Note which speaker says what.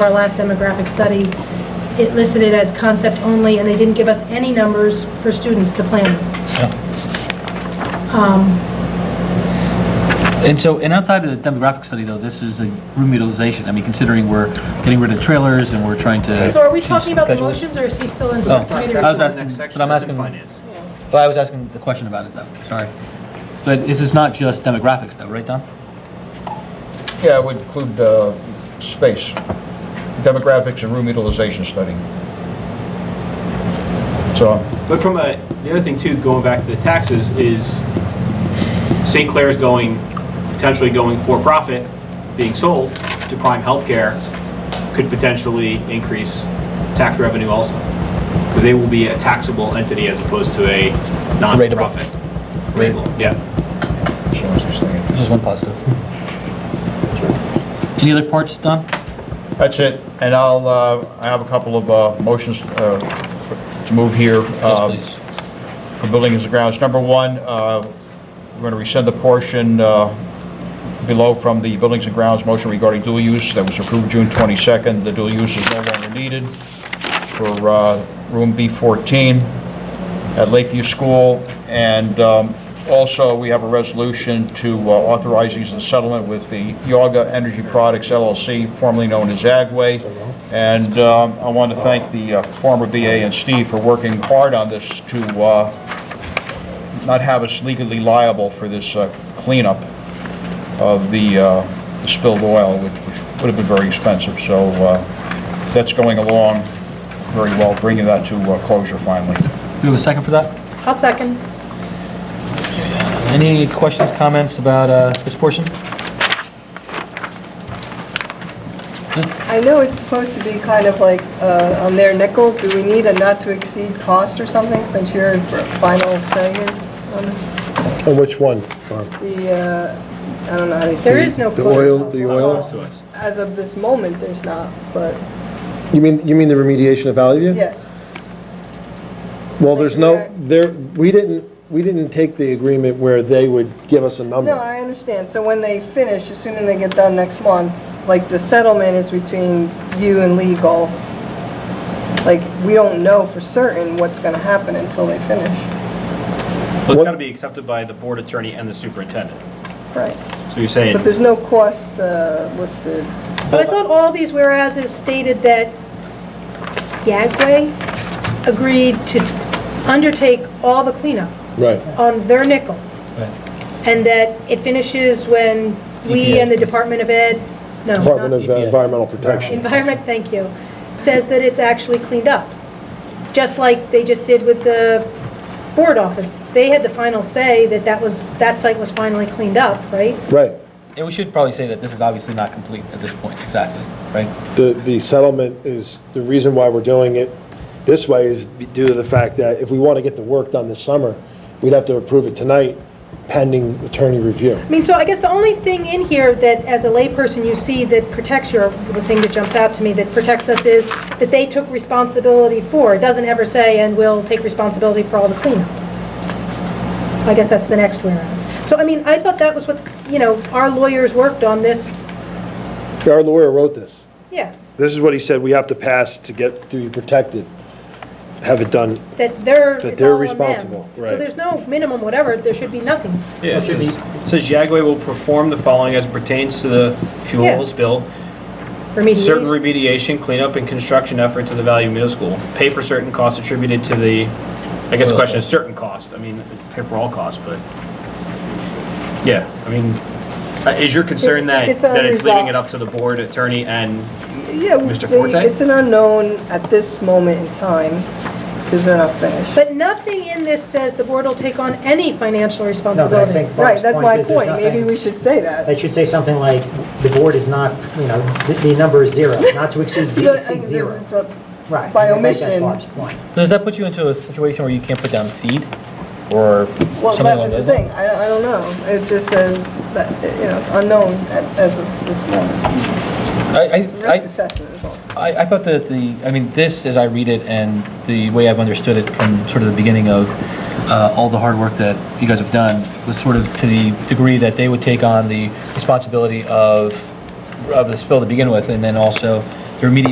Speaker 1: Our last demographic study, it listed it as concept only, and they didn't give us any numbers for students to plan. Um,
Speaker 2: And so, and outside of the demographic study, though, this is a room utilization. I mean, considering we're getting rid of trailers and we're trying to.
Speaker 1: So are we
Speaker 2: choose
Speaker 1: talking about the
Speaker 2: gradually-
Speaker 1: motions, or is he still in?
Speaker 2: Oh,
Speaker 1: committee?
Speaker 2: I was
Speaker 3: the
Speaker 2: asking,
Speaker 3: next
Speaker 2: but
Speaker 3: section
Speaker 2: I'm
Speaker 3: is in
Speaker 2: asking.
Speaker 3: finance.
Speaker 2: Well, I was asking the question about it, though, sorry. But this is not just demographics, though, right, Don?
Speaker 4: Yeah, it would include uh, space, demographics and room utilization study. So,
Speaker 3: But from a, the other thing too, going back to the taxes, is St. Clair's going, potentially going for-profit, being sold to Prime Healthcare, could potentially increase tax revenue also. Because they will be a taxable entity as opposed to a non-profit. Ratable, yeah.
Speaker 4: as long as they stay in.
Speaker 2: There's one positive. Any other parts, Don?
Speaker 4: That's it, and I'll, uh, I have a couple of uh, motions uh, to move here. uh,
Speaker 2: Yes, please.
Speaker 4: For buildings and grounds. Number one, uh, we're going to rescind the portion uh, below from the buildings and grounds motion regarding dual use that was approved June 22nd. The dual use is no longer needed for uh, room B14 at Lakeview School. And um, also, we have a resolution to uh, authorizing the settlement with the Yaga Energy Products LLC, formerly known as Agway. And um, I want to thank the uh, former BA and Steve for working hard on this to uh, not have us legally liable for this uh, cleanup of the uh, spilled oil, which which would have been very expensive. So uh, that's going along very well, bringing that to uh, closure finally.
Speaker 2: We have a second for that?
Speaker 5: I'll second.
Speaker 2: Any questions, comments about uh, this portion?
Speaker 5: I know it's supposed to be kind of like uh, on their nickel. Do we need a not to exceed cost or something since you're final say here on
Speaker 6: On which one? Barb?
Speaker 5: the, uh, I don't know how they say it.
Speaker 1: There is no
Speaker 6: The
Speaker 1: quote.
Speaker 6: oil, the oil?
Speaker 5: Well, As of this moment, there's not, but
Speaker 6: You mean, you mean the remediation of Valley View?
Speaker 5: yes.
Speaker 6: Well, there's no, there, we didn't, we didn't take the agreement where they would give us a
Speaker 5: No,
Speaker 6: number.
Speaker 5: I understand. So when they finish, as soon as they get done next month, like the settlement is between you and legal. Like, we don't know for certain what's going to happen until they finish.
Speaker 3: But it's got to be accepted by the board attorney and the superintendent.
Speaker 5: Right.
Speaker 3: So you're saying,
Speaker 5: But there's no cost uh, listed.
Speaker 7: But I thought all these whereases stated that Yagway agreed to undertake all the cleanup
Speaker 6: Right.
Speaker 7: on their nickel,
Speaker 2: Right.
Speaker 7: and that it finishes when we and the Department of Ed, no, not-
Speaker 6: Department of uh,
Speaker 2: EPA.
Speaker 6: Environmental Protection.
Speaker 7: Environment, thank you, says that it's actually cleaned up, just like they just did with the board office. They had the final say that that was, that site was finally cleaned up, right?
Speaker 6: Right.
Speaker 2: And we should probably say that this is obviously not complete at this point, exactly, right?
Speaker 6: The, the settlement is, the reason why we're doing it this way is due to the fact that if we want to get the work done this summer, we'd have to approve it tonight pending attorney review.
Speaker 7: I mean, so I guess the only thing in here that, as a layperson, you see that protects your, the thing that jumps out to me that protects us is that they took responsibility for. It doesn't ever say, and will take responsibility for all the cleanup. I guess that's the next whereas. So, I mean, I thought that was what, you know, our lawyers worked on this,
Speaker 6: Our lawyer wrote this.
Speaker 7: yeah,
Speaker 6: This is what he said we have to pass to get, to be protected, have it done.
Speaker 7: that they're, it's
Speaker 6: That they're
Speaker 7: all on them.
Speaker 6: responsible,
Speaker 7: So
Speaker 6: right.
Speaker 7: there's no minimum whatever, there should be nothing.
Speaker 3: Yeah, it says- it says Yagway will perform the following as pertains to the
Speaker 7: Yeah.
Speaker 3: fuel spill. Certain
Speaker 7: Remediation,
Speaker 3: remediation, cleanup, and construction efforts at the Valley Middle School. Pay for certain costs attributed to the, I guess the question is certain cost. I mean, pay for all costs, but, yeah, I mean, uh, is your concern that,
Speaker 5: It's
Speaker 3: that it's leaving it
Speaker 5: unresolved.
Speaker 3: up to the board attorney and,
Speaker 5: Yeah,
Speaker 3: Mr.
Speaker 5: they-
Speaker 3: Forte?
Speaker 5: It's an unknown at this moment in time, because they're not finished.
Speaker 7: but nothing in this says the board will take on any financial
Speaker 8: No, but I
Speaker 7: responsibility.
Speaker 8: think Barb's
Speaker 5: Right, that's my
Speaker 8: is there's
Speaker 5: point, maybe
Speaker 8: nothing-
Speaker 5: we should say that.
Speaker 8: They should say something like, the board is not, you know, the, the number is zero, not to exceed
Speaker 5: So,
Speaker 8: zero,
Speaker 5: I mean,
Speaker 8: exceed
Speaker 5: there's-
Speaker 8: zero.
Speaker 5: it's a-
Speaker 8: Right.
Speaker 5: by
Speaker 8: I think that's
Speaker 5: omission.
Speaker 8: Barb's point.
Speaker 2: Does that put you into a situation where you can't put down seed or something
Speaker 5: Well,
Speaker 2: along those
Speaker 5: that was the
Speaker 2: lines?
Speaker 5: thing, I, I don't know, it just says that, you know, it's unknown at- as of this moment.
Speaker 2: I- I,
Speaker 5: Risk
Speaker 2: I,
Speaker 5: assessment is all.
Speaker 2: I, I thought that the, I mean, this, as I read it, and the way I've understood it from sort of the beginning of uh, all the hard work that you guys have done, was sort of to the degree that they would take on the responsibility of, of the spill to begin with, and then also their immediate